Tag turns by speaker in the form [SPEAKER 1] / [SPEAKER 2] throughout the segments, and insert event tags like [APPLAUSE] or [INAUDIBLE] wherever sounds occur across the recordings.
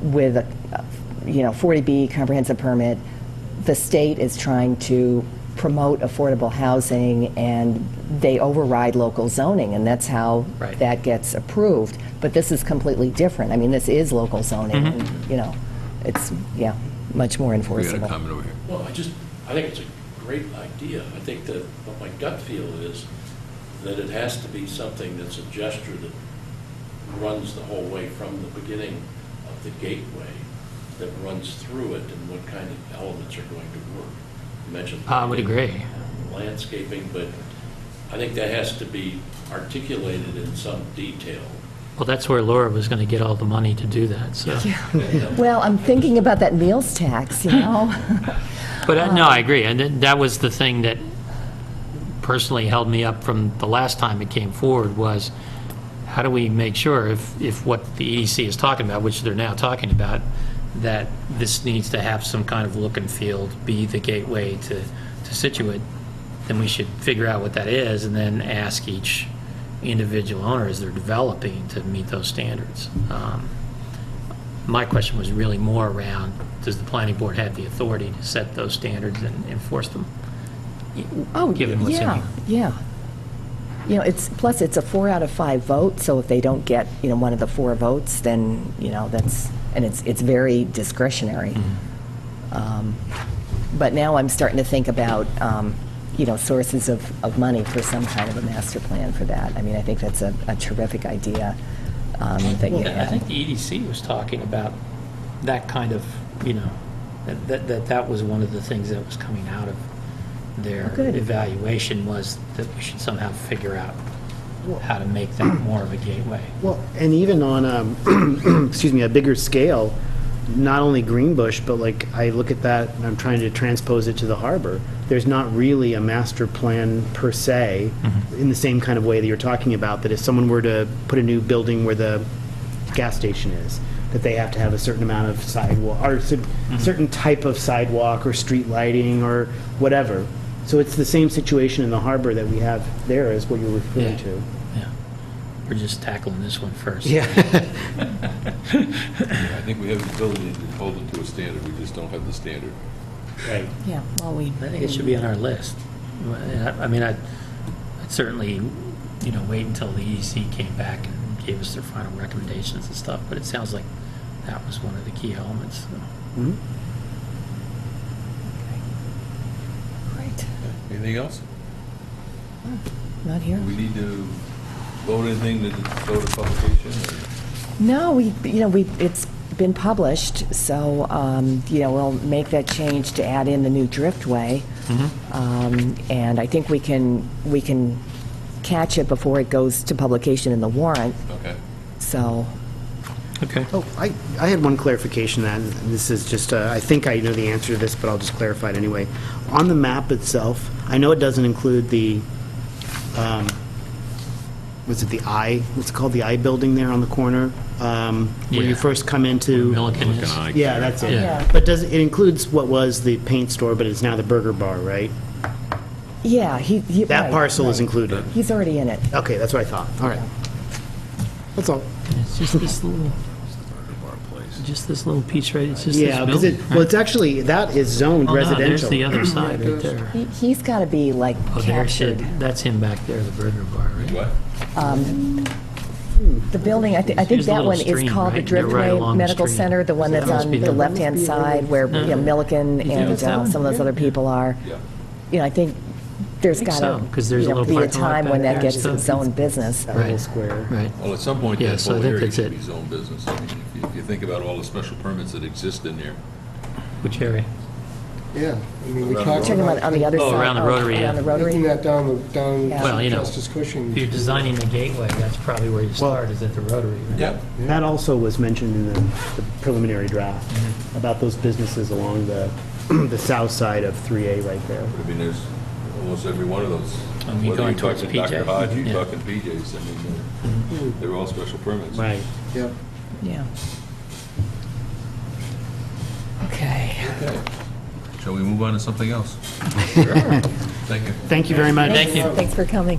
[SPEAKER 1] with, a you know, 40B comprehensive permit, the state is trying to promote affordable housing, and they override local zoning, and that's how
[SPEAKER 2] Right.
[SPEAKER 1] that gets approved. But this is completely different. I mean, this is local zoning, and, you know, it's, yeah, much more
[SPEAKER 3] We got a
[SPEAKER 1] enforceable.
[SPEAKER 3] comment over here.
[SPEAKER 4] Well, I just, I think it's a great idea. I think that, but my gut feel is that it has to be something that's a gesture that runs the whole way from the beginning of the gateway, that runs through it and what kind of elements are going to work. You mentioned.
[SPEAKER 2] I would agree.
[SPEAKER 4] Landscaping, but I think that has to be articulated in some
[SPEAKER 3] [LAUGHS]
[SPEAKER 4] detail.
[SPEAKER 2] Well, that's where Laura was going to get all the money to do that, so.
[SPEAKER 1] Well, I'm thinking about that meals tax, you know?
[SPEAKER 2] But uh, no, I agree. And th- that was the thing that personally held me up from the last time it came forward was, how do we make sure if, if what the EDC is talking about, which they're now talking about, that this needs to have some kind of look and feel, be the gateway to, to Situate, then we should figure out what that is and then ask each individual owner as they're developing to meet those standards. Um, my question was really more around, does the planning board have the authority to set those standards and enforce them?
[SPEAKER 1] Oh,
[SPEAKER 2] Given what's in
[SPEAKER 1] yeah,
[SPEAKER 2] here.
[SPEAKER 1] yeah. You know, it's, plus it's a four out of five vote, so if they don't get, you know, one of the four votes, then, you know, that's, and it's, it's very discretionary.
[SPEAKER 2] Mm-hmm.
[SPEAKER 1] Um, But now I'm starting to think about, um, you know, sources of, of money for some kind of a master plan for that. I mean, I think that's a a terrific idea um, that you
[SPEAKER 2] I
[SPEAKER 1] had.
[SPEAKER 2] think the EDC was talking about that kind of, you know, that- that, that that was one of the things that was coming out of their
[SPEAKER 1] Oh, good.
[SPEAKER 2] evaluation was that we should somehow figure out how to make that more of a gateway.
[SPEAKER 5] Well, and even on, um, [CLEARS THROAT] excuse me, a bigger scale, not only Greenbush, but like, I look at that and I'm trying to transpose it to the harbor. There's not really a master plan per se, in the same kind of way that you're talking about, that if someone were to put a new building where the gas station is, that they have to have a certain amount of sidewalk, or cer- certain type of sidewalk, or street lighting, or whatever. So it's the same situation in the harbor that we have there is what you're referring
[SPEAKER 2] Yeah.
[SPEAKER 5] to.
[SPEAKER 2] Yeah. We're just tackling this one first.
[SPEAKER 3] I think we have the ability to hold it to a standard, we just don't have the standard.
[SPEAKER 5] Right.
[SPEAKER 1] Yeah, well, we.
[SPEAKER 2] I think it should be on our list. I I mean, I'd I'd certainly, you know, wait until the EDC came back and gave us their final recommendations and stuff, but it sounds like that was one of the key elements.
[SPEAKER 1] Right,
[SPEAKER 3] Anything else?
[SPEAKER 1] not here.
[SPEAKER 3] Do we need to vote anything to go to publication? or-
[SPEAKER 1] No, we, you know, we, it's been published, so, um, you know, we'll make that change to add in the new driftway.
[SPEAKER 2] Mm-hmm.
[SPEAKER 1] Um, And I think we can, we can catch it before it goes to publication in the warrant,
[SPEAKER 3] Okay.
[SPEAKER 1] so,
[SPEAKER 2] Okay.
[SPEAKER 5] Oh, I, I had one clarification that, and this is just, uh, I think I know the answer to this, but I'll just clarify it anyway. On the map itself, I know it doesn't include the, um, was it the I, what's it called, the I building there on the corner? Um, Where
[SPEAKER 2] Yeah.
[SPEAKER 5] you first come into.
[SPEAKER 2] Milliken is-
[SPEAKER 5] Yeah, that's it.
[SPEAKER 2] Yeah.
[SPEAKER 5] But does, it includes what was the paint store, but it's now the burger bar, right?
[SPEAKER 1] yeah, he. he-
[SPEAKER 5] That
[SPEAKER 1] right,
[SPEAKER 5] parcel is
[SPEAKER 1] right.
[SPEAKER 5] included.
[SPEAKER 1] He's already in it.
[SPEAKER 5] Okay, that's what I thought. All right. That's all.
[SPEAKER 6] It's just this little, just this little piece, right? It's just this
[SPEAKER 5] Yeah, because
[SPEAKER 6] building.
[SPEAKER 5] it, well, it's actually, that is zoned
[SPEAKER 6] Oh, no, There's
[SPEAKER 5] residential.
[SPEAKER 6] the other side right there.
[SPEAKER 1] He- He's got to be, like,
[SPEAKER 2] Oh, there's,
[SPEAKER 1] captured.
[SPEAKER 2] it. that's him back there, the burger bar, right?
[SPEAKER 3] What?
[SPEAKER 1] The building, I thi- I think
[SPEAKER 2] Here's a
[SPEAKER 1] that
[SPEAKER 2] little
[SPEAKER 1] one is
[SPEAKER 2] stream,
[SPEAKER 1] called the
[SPEAKER 2] right? They're
[SPEAKER 1] Driftway
[SPEAKER 2] right along the
[SPEAKER 1] Medical
[SPEAKER 2] stream.
[SPEAKER 1] Center, the one
[SPEAKER 2] That
[SPEAKER 1] that's
[SPEAKER 2] must
[SPEAKER 1] on
[SPEAKER 2] be
[SPEAKER 1] the
[SPEAKER 2] the-
[SPEAKER 1] left-hand side where, you know, Milliken and
[SPEAKER 6] that's that
[SPEAKER 1] uh,
[SPEAKER 6] one?
[SPEAKER 1] some of those other people are. You know, I think there's
[SPEAKER 2] think
[SPEAKER 1] got
[SPEAKER 2] so,
[SPEAKER 1] to,
[SPEAKER 2] 'cause there's a
[SPEAKER 1] you know,
[SPEAKER 2] little
[SPEAKER 1] be a
[SPEAKER 2] parking lot
[SPEAKER 1] time when
[SPEAKER 2] back
[SPEAKER 1] that
[SPEAKER 2] there
[SPEAKER 1] gets
[SPEAKER 2] and
[SPEAKER 1] its
[SPEAKER 2] stuff.
[SPEAKER 1] own business.
[SPEAKER 5] That little
[SPEAKER 2] Right.
[SPEAKER 5] square.
[SPEAKER 2] Right.
[SPEAKER 3] Well, at some point,
[SPEAKER 2] Yeah,
[SPEAKER 3] that
[SPEAKER 2] so I
[SPEAKER 3] whole
[SPEAKER 2] think
[SPEAKER 3] area
[SPEAKER 2] that's
[SPEAKER 3] should
[SPEAKER 2] it.
[SPEAKER 3] be zone business. I mean, if you- if you think about all the special permits that exist in there.
[SPEAKER 2] Which area?
[SPEAKER 7] Yeah, I mean, we
[SPEAKER 3] Around
[SPEAKER 7] talked
[SPEAKER 1] Talking about on the other side.
[SPEAKER 2] Oh, around the rotary, yeah.
[SPEAKER 1] Around the rotary.
[SPEAKER 7] taking that down, the down
[SPEAKER 1] Yeah. Well,
[SPEAKER 2] you know,
[SPEAKER 7] Justice Cushing.
[SPEAKER 2] If you're designing the gateway, that's probably where you start, is at the Rotary, right?
[SPEAKER 3] Yep.
[SPEAKER 5] That also was mentioned in the the preliminary draft, about those businesses along the, [CLEARS THROAT] the south side of 3A right there.
[SPEAKER 3] I mean, there's almost every one of those.
[SPEAKER 2] And you're
[SPEAKER 3] Whether
[SPEAKER 2] going
[SPEAKER 3] you're
[SPEAKER 2] towards
[SPEAKER 3] talking
[SPEAKER 2] PJ.
[SPEAKER 3] Dr. Hodge, you're
[SPEAKER 2] Yeah. Mm-hmm.
[SPEAKER 3] talking PJ's, I mean, they're- they're all special permits.
[SPEAKER 5] Right.
[SPEAKER 7] Yep.
[SPEAKER 1] Yeah. Okay.
[SPEAKER 3] Okay. Shall we move on to something
[SPEAKER 2] [LAUGHS]
[SPEAKER 3] else? Thank you.
[SPEAKER 5] Thank you very much.
[SPEAKER 2] Thank you.
[SPEAKER 1] Thanks for coming.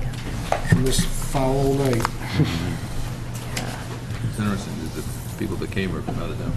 [SPEAKER 7] From this foul night.
[SPEAKER 3] It's interesting that the people that came are from out of town.